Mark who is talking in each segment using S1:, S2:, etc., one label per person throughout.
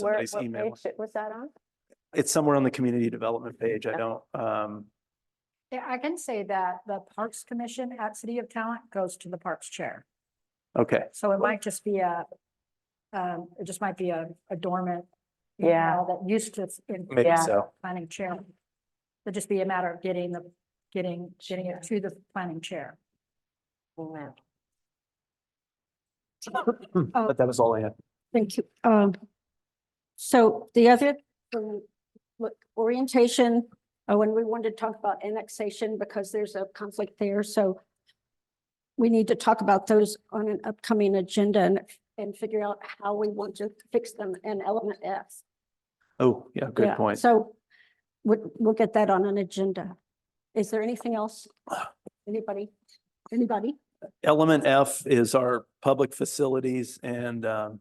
S1: Where,
S2: somebody's
S1: what
S2: email.
S1: page it- was that on?
S2: It's somewhere on the community development page. I don't, um,
S3: Yeah, I can say that the Parks Commission at City of Talent goes to the Parks Chair.
S2: okay.
S3: So it might just be a, um, it just might be a a dormant.
S1: Yeah.
S3: email That used to s- in
S2: Maybe
S1: Yeah.
S2: so.
S3: planning chair. It'd just be a matter of getting the, getting, getting it to the planning chair. Oh.
S2: Hmm, But that was all I had.
S4: Thank you. Um, so the other, um, look, orientation, oh, and we wanted to talk about annexation because there's a conflict there, so we need to talk about those on an upcoming agenda and, and figure out how we want to fix them in element F.
S2: Oh, yeah,
S4: Yeah,
S2: good point.
S4: So we'll, we'll get that on an agenda. Is there anything else? Anybody? Anybody?
S2: Element F is our public facilities and, um,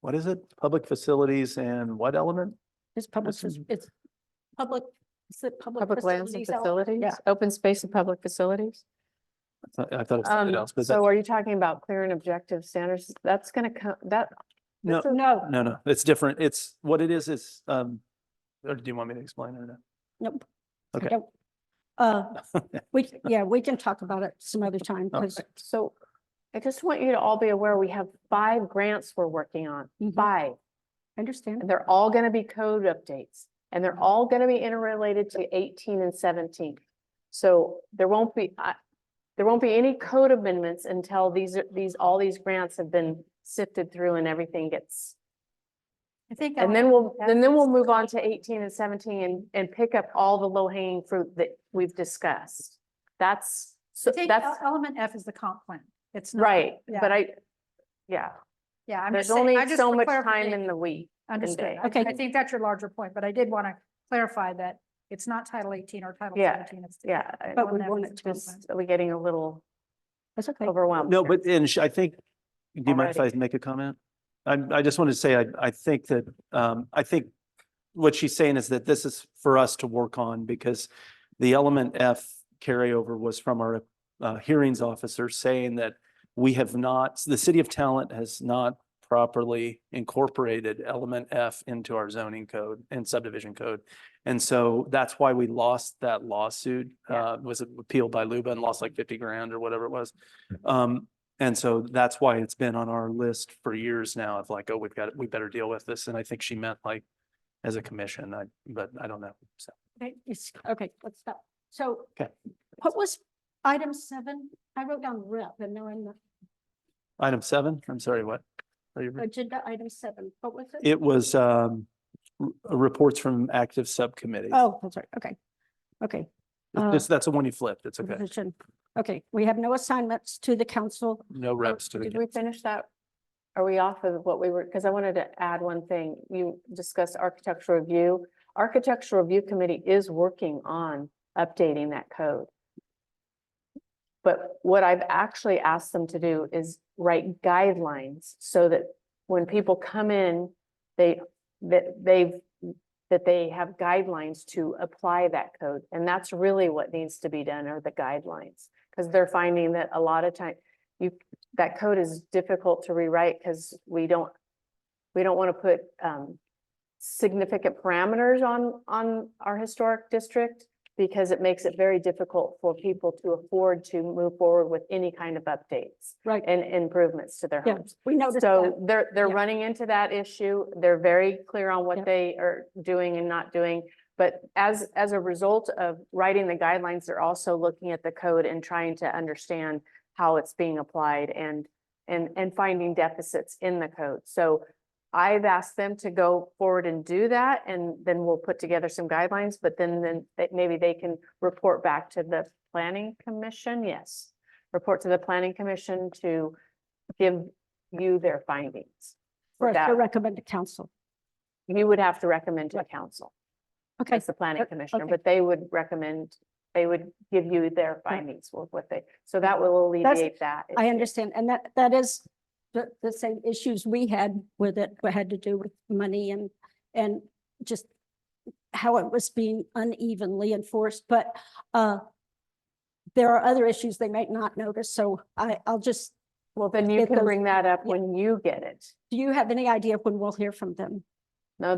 S2: what is it? Public facilities and what element?
S4: Is public,
S2: This is-
S4: it's public, is it public?
S1: Public lands and
S4: facilities out?
S1: facilities,
S4: Yeah.
S1: open space and public facilities.
S2: I thought- I thought it was something
S1: Um,
S2: else, but
S1: so
S2: that's,
S1: are you talking about clear and objective standards? That's gonna come, that,
S2: no,
S4: No,
S2: no, no, it's different. It's, what it is, is, um, or do you want me to explain it or not?
S4: Nope.
S2: Okay.
S4: Nope. Uh, we, yeah, we can talk about it some other time because,
S1: so I just want you to all be aware, we have five grants we're working on,
S4: Mhm.
S1: five.
S4: I understand.
S1: And they're all gonna be code updates and they're all gonna be interrelated to eighteen and seventeen. So there won't be, I, there won't be any code amendments until these, are these, all these grants have been sifted through and everything gets.
S3: I think.
S1: And then we'll, and then we'll move on to eighteen and seventeen and, and pick up all the low hanging fruit that we've discussed. That's, so
S3: Take
S1: that's,
S3: el- element F is the comp plan. It's. not-
S1: right,
S3: yeah,
S1: but I, yeah,
S3: Yeah, I'm
S1: there's
S3: just saying.
S1: only
S3: I just
S1: so
S3: for
S1: much time
S3: clarification-
S1: in the week.
S3: Understood.
S1: day.
S3: Okay.
S4: Okay.
S3: I think that's your larger point, but I did want to clarify that it's not Title eighteen or Title
S1: Yeah,
S3: seventeen. It's the-
S1: Yeah. I-
S4: But we
S3: that
S4: want
S3: was
S4: it to,
S3: just-
S1: Just, we're getting a little
S4: that's okay.
S1: overwhelmed.
S2: No,
S1: here.
S2: but, and sh- I think, do you mind if I
S1: Alrighty.
S2: make a comment? I, I just wanted to say, I, I think that, um, I think what she's saying is that this is for us to work on because the element F carryover was from our, uh, hearings officer saying that we have not, the city of talent has not properly incorporated element F into our zoning code and subdivision code. And so that's why we lost that lawsuit,
S1: Yeah.
S2: uh, was appealed by Luba and lost like fifty grand or whatever it was. Um, and so that's why it's been on our list for years now of like, oh, we've got, we better deal with this. And I think she meant like as a commission, I, but I don't know. So,
S4: Okay, it's- Okay, let's stop. So
S2: Okay.
S4: what was item seven? I wrote down rep and they're in the
S2: item seven, I'm sorry, what? Are
S1: Mm-hmm.
S2: you-
S4: agenda item seven. What was it?
S2: It was, um, r- reports from active subcommittees.
S4: Oh, that's right. Okay. Okay.
S2: It's
S4: uh,
S2: just- that's the one you flipped. It's okay.
S4: revision. Okay, we have no assignments to the council.
S2: No reps to the.
S1: Did we finish that? Are we off of what we were, because I wanted to add one thing. You discussed architectural review. Architectural Review Committee is working on updating that code. But what I've actually asked them to do is write guidelines so that when people come in, they, that they've, that they have guidelines to apply that code. And that's really what needs to be done are the guidelines. Because they're finding that a lot of time, you, that code is difficult to rewrite because we don't, we don't want to put um significant parameters on, on our historic district because it makes it very difficult for people to afford to move forward with any kind of updates
S4: Right.
S1: and improvements to their
S4: Yeah,
S1: homes.
S4: we noticed that.
S1: So they're, they're
S4: Yeah.
S1: running into that issue. They're very clear on
S4: Yep.
S1: what they are doing and not doing. But as, as a result of writing the guidelines, they're also looking at the code and trying to understand how it's being applied and, and, and finding deficits in the code. So I've asked them to go forward and do that and then we'll put together some guidelines, but then, then they- maybe they can report back to the planning commission, yes. Report to the planning commission to give you their findings.
S4: For us to
S1: that-
S4: recommend to council.
S1: You would have to recommend to
S4: Right.
S1: council,
S4: Okay,
S1: as the planning
S4: okay,
S1: commissioner,
S4: okay.
S1: but they would recommend, they would give you their findings with what they, so that will alleviate that.
S4: I
S1: issue.
S4: understand, and that, that is the, the same issues we had with it, what had to do with money and, and just how it was being unevenly enforced, but, uh, there are other issues they might not notice, so I, I'll just,
S1: Well, then you
S4: get
S1: can
S4: those-
S1: bring that up
S4: yeah.
S1: when you get it.
S4: do you have any idea when we'll hear from them?